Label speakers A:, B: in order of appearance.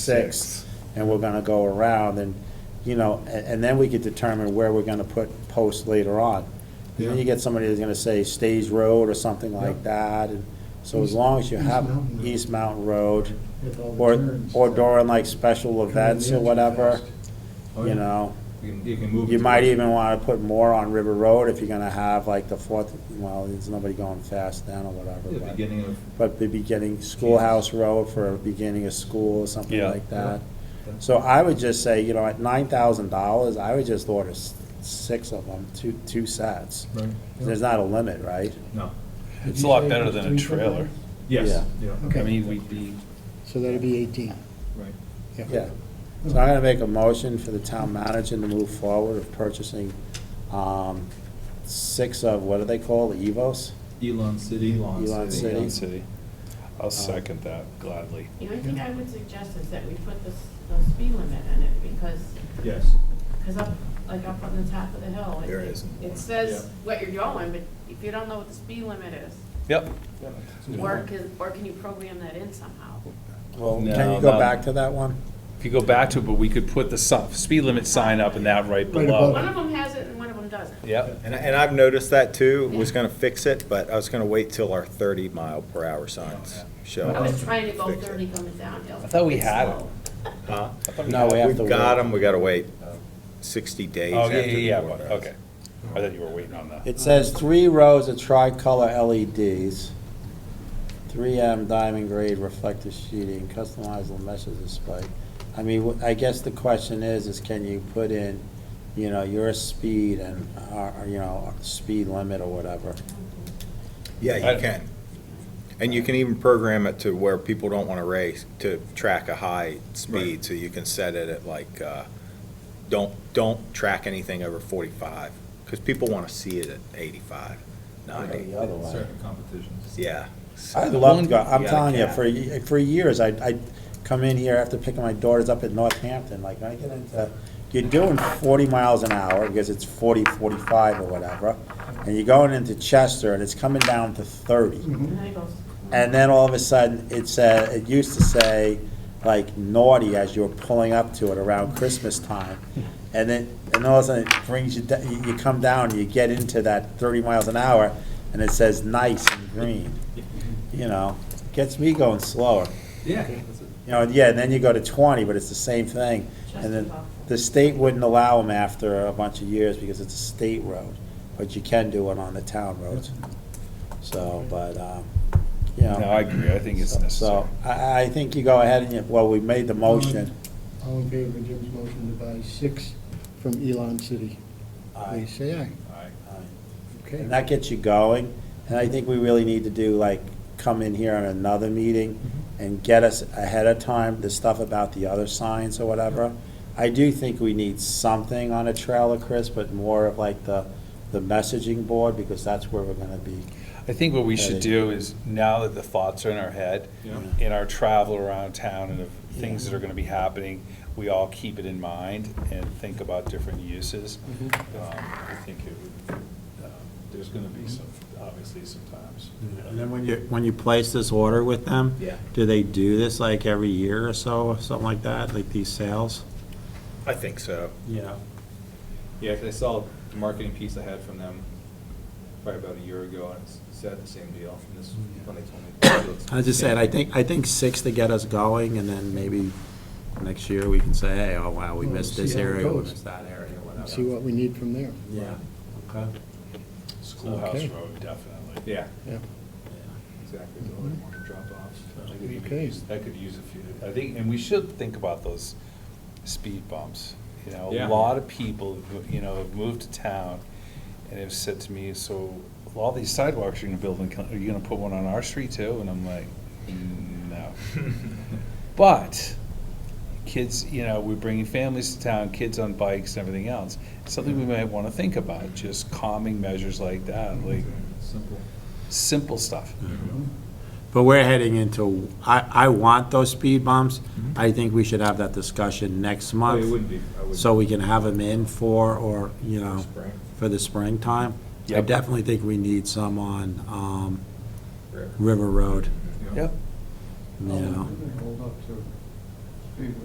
A: six, and we're gonna go around, and, you know, a- and then we could determine where we're gonna put posts later on. And then you
B: Yeah.
A: get somebody that's gonna say Stage Road or something like that, and so as
B: East-
A: long as you
B: East
A: have
B: Mountain Road.
A: East Mountain Road,
B: With all the
A: or,
B: turns.
A: or during like special
B: Coming
A: events
B: in
A: or
B: too
A: whatever,
B: fast.
C: Oh,
A: you
C: yeah.
A: know.
C: You can, you can move.
A: You
C: it.
A: might even wanna put more on River Road if you're gonna have like the fourth, well, there's nobody going fast then or
C: The
A: whatever, but.
C: beginning of,
A: but the beginning, Schoolhouse Road for beginning of school or something
D: Yeah.
A: like that.
C: Yeah.
A: So I would just say, you know, at nine thousand dollars, I would just order s- six of them, two, two sets.
C: right,
A: There's not a limit, right?
C: no,
D: It's a lot better than a trailer.
C: yes,
A: Yeah.
C: yeah,
D: I
B: Okay.
D: mean, we'd be,
E: So that'd be 18.
C: right.
A: Yeah. So I'm gonna make a motion for the town manager to move forward of purchasing, um, six of, what do they call, the Evos?
C: Elon City.
A: Elon City.
D: Elon City.
A: Uh,
D: I'll second that gladly.
F: The only thing I would suggest is that we put the, s- the speed limit in it, because,
C: Yes,
F: because up, like up on the top of the hill. it-
C: There isn't one,
F: It says
C: yeah.
F: what you're going, but if you don't know what the speed limit is,
D: Yep.
F: or can, or can you program that in somehow?
A: Well, um, can
D: No,
A: you go
D: no.
A: back to that one?
D: If you go back to, it, but we could put the si- speed limit sign up and that right
E: Right
D: below.
E: above
F: One of them has it and one of them doesn't.
D: Yep.
G: And, and I've noticed that too, was gonna fix it, but I was gonna wait till our thirty mile per
D: Oh,
G: hour signs show.
F: I
G: up.
F: was trying to go
G: Fix it.
F: thirty coming downhill.
D: I thought we
F: It's
D: had it.
F: slow.
G: Huh?
A: No, we have to
G: We've got
A: wait.
G: them, we gotta wait sixty days
D: Oh,
G: after
D: yeah, yeah,
G: the
D: yeah,
G: order.
D: but- okay. I thought you were waiting on that.
A: It says three rows of tricolor E LEDs, 3M diamond grade reflective sheeting, customizable meshes display. I mean, wh- I guess the question is, is can you put in, you know, your speed and, uh, you know, speed limit or whatever?
G: Yeah, you can. And you can even program it to where people don't wanna race, to track a high speed, so you can set it at like, uh, don't, don't track anything over forty-five, cause people wanna see it at
A: or
G: eighty-five, ninety,
A: The other way.
C: certain competitions.
G: yeah.
A: I'd love to go, I'm
G: Yeah,
A: telling you,
G: cat.
A: for, y- for years, I, I come in here after picking my daughters up at Northampton, like, I get into, you're doing forty miles an hour, because it's 40, 45 or whatever, and you're going into Chester, and it's coming down to thirty.
F: And then it goes.
A: And then all of a sudden, it said, it used to say, like, naughty as you were pulling up to it around Christmas time. And then, and all of a sudden, it brings you, da- you you come down, you get into that thirty miles an hour, and it says nice and green. You know, gets me going slower.
C: Yeah, that's it.
A: You know, yeah, and then you go to twenty, but it's the same thing. And then the state wouldn't allow them after a bunch of years because it's a state road, but you can do it on the town roads. So, but, um, you know.
D: No, I agree. I think it's necessary.
A: So I, I think you go ahead and, you- well, we made the motion.
E: All in favor of Jim's motion to buy six from Elon City?
A: Aye.
E: Please say aye.
C: Aye.
A: Um,
E: Okay.
A: And that gets you going. And I think we really need to do, like, come in here on another meeting and get us ahead of time, the stuff about the other signs or whatever. I do think we need something on a trailer, Chris, but more of like the, the messaging board, because that's where we're gonna be.
D: I think what we should do is, now that the thoughts are in our head,
C: Yeah.
D: in our travel around town and the things that are gonna be happening, we all keep it in mind and think about different uses. Um, I think it would, um, there's gonna be some, obviously sometimes.
A: And then when you, when you place this order with them?
G: Yeah.
A: Do they do this like every year or so, or something like that, like these sales?
G: I think so.
A: Yeah.
C: Yeah, 'cause I saw the marketing piece I had from them probably about a year ago, and it's- it said the same deal, and this, is when they told me.
A: I was just saying, I think, I think six to get us going, and then maybe next year we can say, hey, oh, wow, we
E: Well,
A: missed
E: see
A: this
E: how it
A: area, we
E: goes.
A: missed that area,
E: And See
A: whatever.
E: what we need from there.
A: Yeah, okay.
D: Schoolhouse
E: Okay.
D: Road, definitely.
C: Yeah,
E: Yeah.
C: exactly, the only one to drop off.
D: I could even
E: Okay.
D: use- I could use a few, I think, and we should think about those speed bumps. You know, a
C: Yeah.
D: lot of people, who, you know, have moved to town and have said to me, so all these sidewalks you're gonna build, in Kel- are you gonna put one on our street too? And I'm like, no. But kids, you know, we're bringing families to town, kids on bikes and everything else. Something we might wanna think about, just calming measures like that, like
C: Simple.
D: simple stuff.
A: But we're heading into, I, I want those speed bumps. I think we should have that discussion next
C: Oh, It
A: month,
C: wouldn't be, I wouldn't.
A: so we can have them in for, or, you know,
C: Spring.
A: for the springtime. I
D: Yep.
A: definitely think we need some on, um, River Road,
C: Yeah.
D: Yep.
A: you know.
B: Hold up to We've-